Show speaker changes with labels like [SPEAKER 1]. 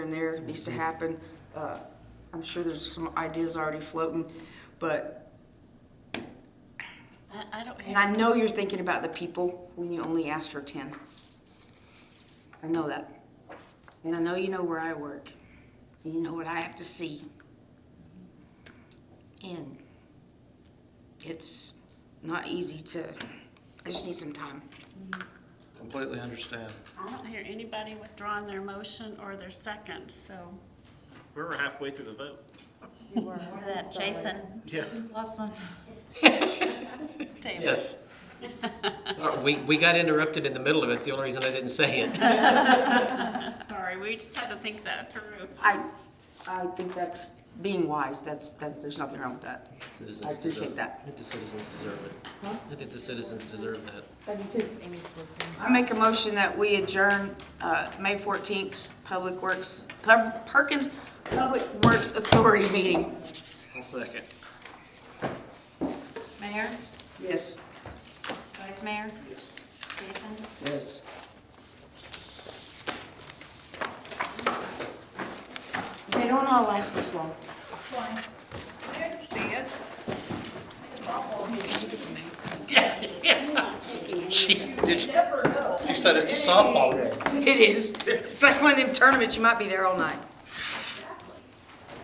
[SPEAKER 1] there, It
[SPEAKER 2] Mm-hmm.
[SPEAKER 1] needs to happen. Uh, I'm sure there's some ideas already floating, but,
[SPEAKER 3] I, I don't
[SPEAKER 1] and I
[SPEAKER 3] have,
[SPEAKER 1] know you're thinking about the people when you only ask for ten. I know that. And I know you know where I work, and you know what I have to see. And it's not easy to, I just need some time.
[SPEAKER 4] Completely understand.
[SPEAKER 3] I don't hear anybody withdrawing their motion or their second, so.
[SPEAKER 5] We're halfway through the vote.
[SPEAKER 6] Or that Jason.
[SPEAKER 5] Yeah.
[SPEAKER 6] Last one.
[SPEAKER 2] Yes. Sorry, We, we got interrupted in the middle of it. It's the only reason I didn't say it.
[SPEAKER 3] Sorry, we just had to think that through.
[SPEAKER 1] I, I think that's being wise, that's, that, there's nothing wrong with that.
[SPEAKER 2] Citizens
[SPEAKER 1] I appreciate
[SPEAKER 2] deserve-
[SPEAKER 1] that.
[SPEAKER 2] I think the citizens deserve it. I think the citizens deserve that.
[SPEAKER 1] I make a motion that we adjourn, uh, May fourteenth, Public Works, Pub- Perkins Public Works Authority meeting.
[SPEAKER 5] I'll second.
[SPEAKER 6] Mayor,
[SPEAKER 1] Yes.
[SPEAKER 6] Vice Mayor,
[SPEAKER 5] Yes.
[SPEAKER 6] Jason.
[SPEAKER 1] Yes. They don't all last this long.
[SPEAKER 4] You said it's a softball.
[SPEAKER 1] It is. It's like one of them tournaments, you might be there all night.